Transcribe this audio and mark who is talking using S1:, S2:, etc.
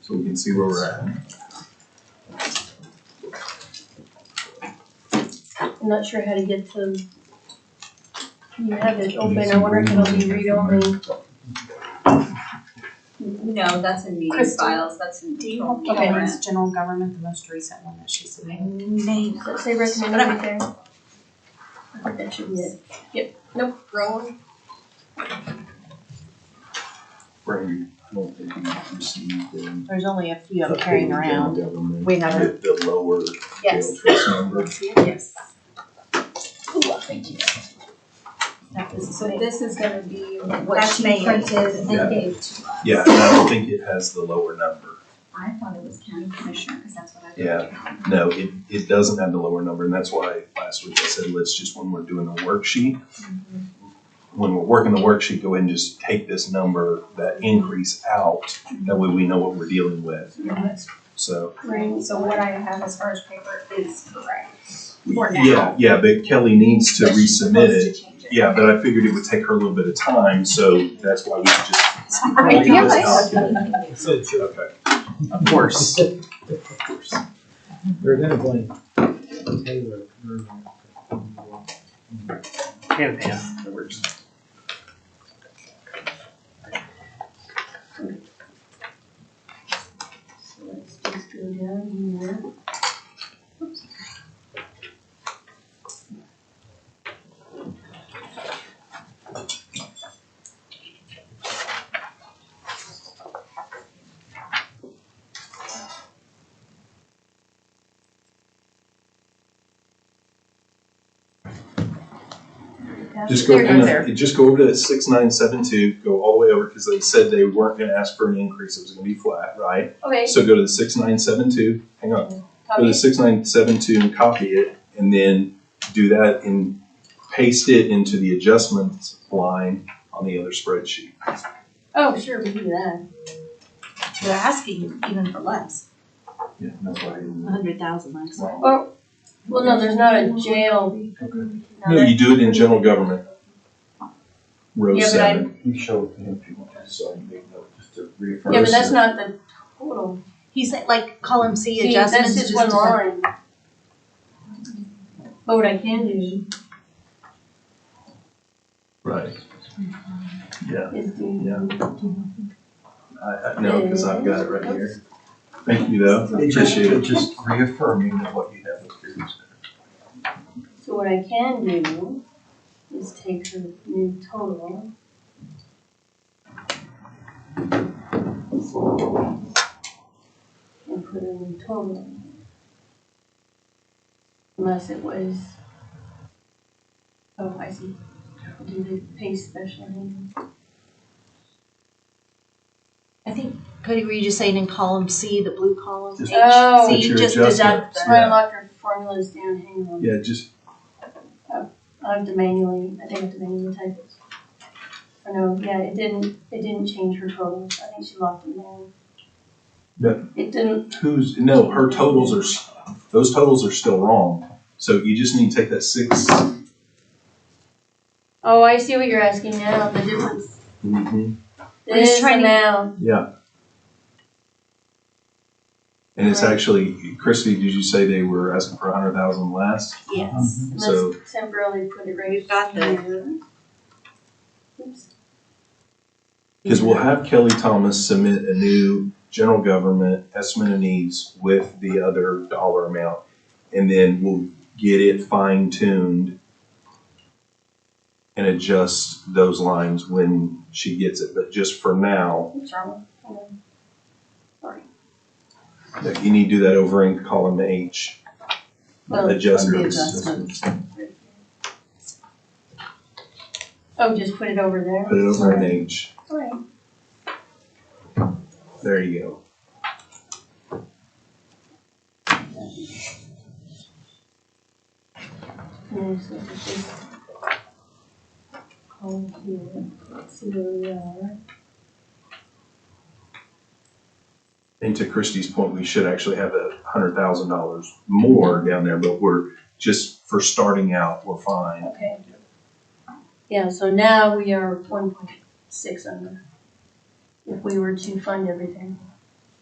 S1: so we can see where we're at.
S2: I'm not sure how to get to. You have it open, I wonder if it'll be read-only.
S3: No, that's in meeting
S4: Kristen.
S3: files, that's in
S4: Do you
S3: general
S4: have Gilligan's
S3: government.
S4: general government, the most recent one that she submitted?
S3: Name.
S2: Does it say recommend
S3: But I'm-
S2: right there? I think that should be it.
S3: Nope, wrong.
S1: Where we, I don't think we received them.
S4: There's only a few I'm carrying around. We haven't-
S1: The lower jail
S3: Yes.
S1: trust number.
S4: Yes.
S3: Thank you.
S4: That is
S3: So
S4: it.
S3: this is gonna be what
S2: That's
S3: she
S2: May.
S3: printed
S1: Yeah.
S3: and gave to us.
S1: Yeah, and I don't think it has the lower number.
S3: I thought it was county commissioner, cause that's what I.
S1: Yeah. No, it, it doesn't have the lower number, and that's why last week I said, let's just, when we're doing the worksheet,
S4: Mm-hmm.
S1: when we're working the worksheet, go ahead and just take this number, that increase out, that way we know what we're dealing with, so.
S3: Right, so what I have as far as paper is correct for now.
S1: Yeah, yeah, but Kelly needs to
S3: But she's
S1: resubmit it.
S3: supposed to change
S1: Yeah, but I figured it would take her a little bit of time, so that's why we just.
S3: Right,
S1: Yeah,
S3: yeah.
S1: let's document Okay.
S4: Of course.
S5: They're gonna blame Taylor. for-
S6: Hand pan, that works.
S2: So let's just go down here.
S1: Just go,
S4: There you go,
S1: no,
S4: there.
S1: just go over to six nine seven two, go all the way over, because they said they weren't gonna ask for an increase, it was gonna be flat, right?
S3: Okay,
S1: So go to the six nine seven two, hang on, go to
S3: copy.
S1: six nine seven two and copy it, and then do that and paste it into the adjustments line on the other spreadsheet.
S2: Oh, sure, we can do that.
S3: They're asking even for less.
S1: Yeah, that's why I didn't.
S4: hundred thousand last.
S1: wrong.
S2: Well, no, there's not a jail.
S1: Okay.
S2: now
S1: No,
S2: that-
S1: you do it in general government. Row
S2: Yeah, but
S1: seven.
S5: You show
S1: if you want to, so I can make note just to reaffirm.
S2: Yeah, but that's not the total.
S4: He said, like, column C
S2: See,
S4: adjustments.
S2: that's just
S4: is
S2: one
S4: just a-
S2: line. But what I can do
S1: Right. Yeah,
S2: is do.
S1: Yeah. I, I know, because I've got it right here. Thank you though, I
S5: It just,
S1: appreciate
S5: it
S1: it.
S5: just reaffirming that what you have up here is.
S2: So what I can do is take the new total. And put a new total in there. Unless it was, oh, I see, do the pay special handling.
S4: I think, Cody, were you just saying in column C, the blue column?
S1: Just-
S2: Oh.
S4: H,
S1: Put
S4: C,
S1: your
S4: just
S1: adjustment.
S4: deduct
S2: That's
S4: the.
S2: why I locked our formulas down, hang on.
S1: Yeah, just,
S2: I have to manually, I think I have to manually type it. I know, yeah, it didn't, it didn't change her total, I think she locked it down.
S1: Yeah.
S2: It didn't,
S1: who's, no, her totals are, s- those totals are still wrong. So you just need to take that six.
S2: oh, I see what you're asking now, the difference.
S1: Mhm.
S4: We're just
S2: This
S4: trying to-
S2: amount,
S1: Yeah. And it's
S2: Right.
S1: actually, Christy, did you say they were asking for a hundred thousand less?
S2: Mm-hmm.
S4: Yes.
S1: So-
S2: let's temporarily put it right here.
S4: We've got the-
S2: Oops,
S1: Because we'll have Kelly Thomas submit a new general government estimate of needs with the other dollar amount. And then we'll get it fine tuned and adjust those lines when she gets it. But just for now,
S2: what's wrong? Hang on. Sorry.
S1: that you need to do that over in column H.
S2: Well,
S1: Adjustments.
S4: adjustments.
S2: right here. Oh, just put it over there?
S1: Put it over in H.
S2: Alright.
S1: There you go.
S2: Yeah, so it's just Column here, let's see where we are.
S1: And to Christie's point, we should actually have a hundred thousand dollars more down there, but we're, just for starting out, we're fine.
S2: Okay. Yeah, so now we are one point six under. If we were to fund everything.